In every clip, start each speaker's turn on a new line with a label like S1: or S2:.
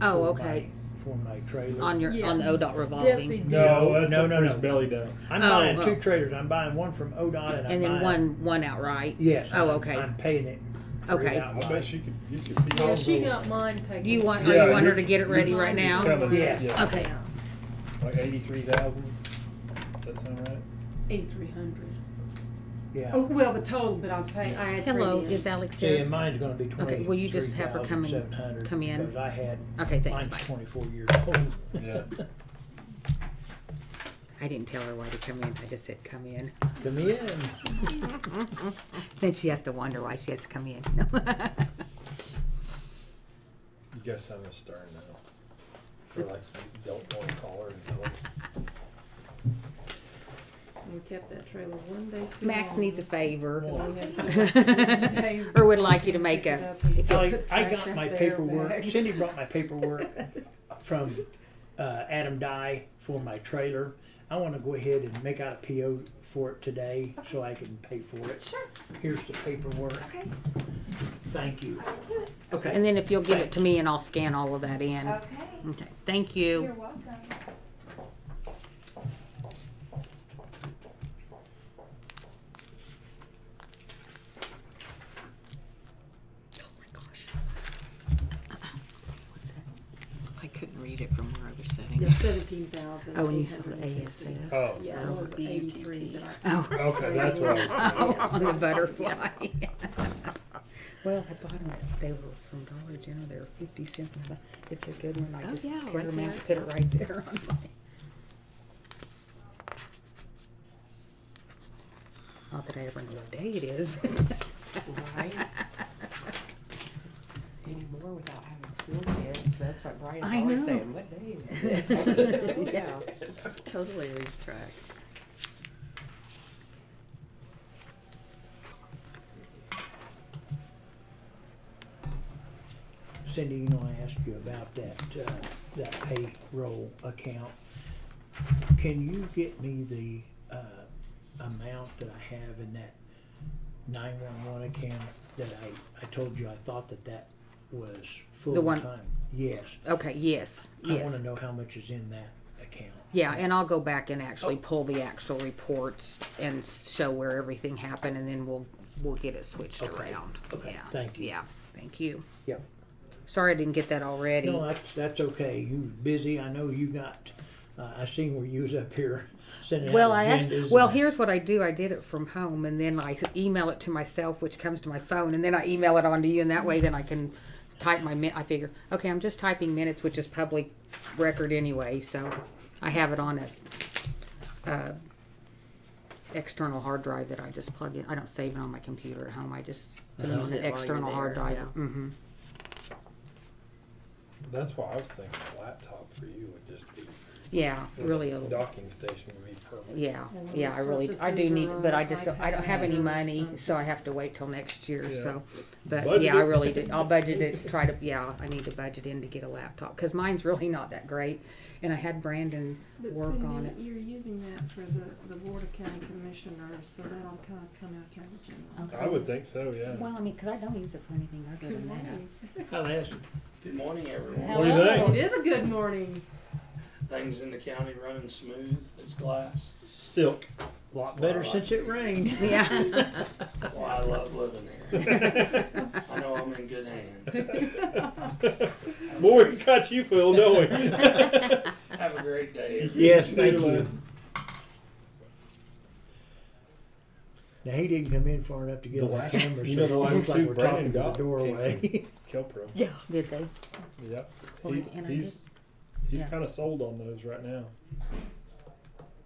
S1: Oh,
S2: for
S1: okay.
S2: my- For my trailer.
S1: on your on the ODOT
S3: Yes,
S1: revolving,
S3: he did.
S2: No, that's
S4: no,
S2: a
S4: no, no.
S2: Chris Belly down. I'm
S1: Oh,
S2: buying
S1: well.
S2: two trailers. I'm buying one from ODOT and I'm
S1: and then
S2: buying.
S1: one one outright.
S2: Yes.
S1: Oh,
S2: I'm-
S1: okay.
S2: I'm paying it. for it
S1: Okay.
S4: I
S2: outright.
S4: bet she could. You could
S3: Yeah, she got mine taken.
S1: Do you want
S4: Yeah,
S1: are you want her
S4: you're-
S1: to get it ready right now?
S4: coming.
S2: Yeah.
S4: Yeah.
S1: Okay.
S4: like eighty-three thousand. Does that sound right?
S3: Eighty-three hundred. Oh,
S2: Yeah.
S3: well, the total, but I pay, I had
S1: Hello,
S3: traded
S1: is
S3: in.
S1: Alex
S2: See, and
S1: here?
S2: mine's gonna be twenty.
S1: Okay, will you just have her come in- come in?
S2: Because I had,
S1: Okay, thanks.
S2: mine's
S1: Bye.
S2: twenty-four years old.
S4: Yeah.
S1: I didn't tell her why to come in. I just said come in.
S2: Come in.
S1: Then she has to wonder why she has to come in.
S4: You gotta sound a stern now. For like you don't want to call her and tell her.
S3: We kept that trailer one day too
S1: Max
S3: long.
S1: needs a favor,
S3: And we had to get that thing
S1: or would like you to make
S3: picked
S1: a.
S3: up and
S1: if
S3: put
S1: you'll-
S2: I, I
S3: trash
S2: got
S3: out
S2: my
S3: there
S2: paperwork,
S3: back.
S2: Cindy brought my paperwork from, uh, Adam Dye for my trailer. I wanna go ahead and make out a PO for it today so I can pay for it.
S3: Sure,
S2: Here's the paperwork.
S3: okay,
S2: Thank you.
S3: I'll do it.
S2: Okay.
S1: And then if you'll give it to me, and I'll scan all of that in.
S3: Okay,
S1: Okay, thank
S3: you're
S1: you.
S3: welcome.
S1: Oh my gosh. What's that? I couldn't read it from where I was sitting.
S3: The seventeen thousand.
S1: Oh, and you saw the ASS.
S4: Oh.
S3: Yeah, it was eighty-three that I
S1: Oh.
S4: Okay, that's what I was.
S1: Oh, on the butterfly. Well, I bought them, they were from Dollar General, they were fifty cents, and I thought, it's a good one, I
S3: Oh,
S1: just
S3: yeah,
S1: tear
S3: right
S1: them out,
S3: there.
S1: put it right there on my. Not that I ever know what day it is.
S5: Right? Anymore without having school kids, that's what Brian's
S1: I
S5: always
S1: know.
S5: saying, what day is this?
S1: Yeah.
S5: Totally lose track.
S2: Cindy, you know, I asked you about that, uh, that payroll account. Can you get me the, uh, amount that I have in that nine-one-one account that I, I told you I thought that that was
S1: one-
S2: full-time? Yes.
S1: Okay, yes,
S2: I
S1: yes,
S2: wanna know how much is in that account.
S1: yeah, and I'll go back and actually
S2: Oh.
S1: pull the actual reports and show where everything happened, and then we'll, we'll get it switched
S2: Okay,
S1: around.
S2: okay,
S1: Yeah,
S2: thank you.
S1: Yeah, thank you.
S2: Yep.
S1: Sorry I didn't get that already.
S2: No, that's, that's okay. You was busy. I know you got, uh, I seen where you was up here sending out
S1: Well, I actually,
S2: agendas
S1: well,
S2: and-
S1: here's what I do. I did it from home, and then I email it to myself, which comes to my phone, and then I email it onto you, and that way, then I can type my min. I figure, okay, I'm just typing minutes, which is public record anyway, so I have it on a uh, external hard drive that I just plug in. I don't save it on my computer at home. I just put it
S2: Uh-huh.
S1: on
S5: Use it
S1: an
S5: while you're
S1: external hard
S5: there,
S1: drive.
S5: yeah.
S1: hmm
S4: That's why I was thinking a laptop for you would just be.
S1: Yeah, really. A,
S4: Docking station would be perfect.
S1: Yeah,
S3: And when
S1: yeah,
S3: the
S1: I really, I
S3: surfaces
S1: do
S3: are
S1: need,
S3: on
S1: but I
S3: the
S1: just don't, I don't have any
S3: iPad or
S1: money,
S3: something.
S1: so I have to wait till next year,
S4: Yeah.
S1: so. But
S4: Budget
S1: yeah, I
S4: it.
S1: really did, I'll budget it, try to, yeah, I need to budget in to get a laptop, cause mine's really not that great, and I had Brandon
S3: But
S1: work on
S3: Cindy,
S1: it.
S3: you're using that for the, the Board of County Commissioners, so that'll kind of come out county general.
S1: Okay.
S4: I would think so. Yeah.
S1: Well, I mean, cause I don't use it for anything other than that.
S2: I'll ask you.
S6: Good morning, everyone.
S4: What do you
S1: Hello.
S4: think?
S3: It is a good morning.
S6: Things in the county running smooth as glass.
S4: Silk.
S2: Lot better since it rained.
S1: Yeah,
S6: Well, I love living here. I know I'm in good hands.
S4: Boy, we got you, Phil, don't we?
S6: Have a great day.
S2: Yes, thank
S4: Neither
S2: you.
S4: was.
S2: Now, he didn't come in far enough to get
S4: The
S2: the last
S4: last-
S2: number, so
S4: you know,
S2: it
S4: the last
S2: looks
S4: two
S2: like we're talking to
S4: Brandon
S2: the
S4: got came
S2: doorway.
S4: Kelpro.
S1: did they?
S4: Yep.
S1: Well,
S4: He-
S1: and I
S4: he's he's
S1: yeah.
S4: kind of sold on those right now.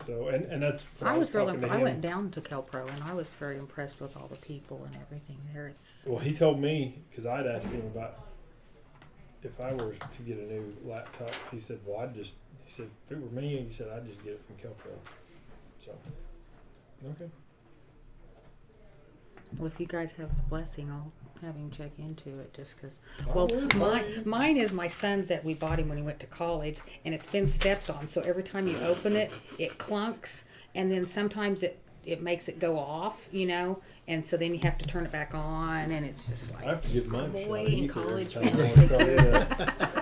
S4: So and and that's what
S1: I was
S4: talking
S1: really,
S4: to
S1: I
S4: him.
S1: went down to Kelpro and I was very impressed with all the people and everything there, it's,
S4: Well, he told me because I'd asked him about if I were to get a new laptop. He said, "Well, I'd just," he said, "If it were me," he said, "I'd just get it from Kelpro." So, okay,
S1: well, if you guys have the blessing, I'll have him check into it, just cause
S4: I
S1: Well,
S4: would,
S1: my,
S4: I-
S1: mine is my son's that we bought him when he went to college, and it's been stepped on. So every time you open it, it clunks, and then sometimes it it makes it go off, you know. And so then you have to turn it back on, and it's just
S4: I
S1: like
S4: have to give mine. a
S5: Boy,
S4: shot
S5: in
S4: either.
S5: college,
S4: Time
S5: we
S4: to
S5: take
S4: try it out.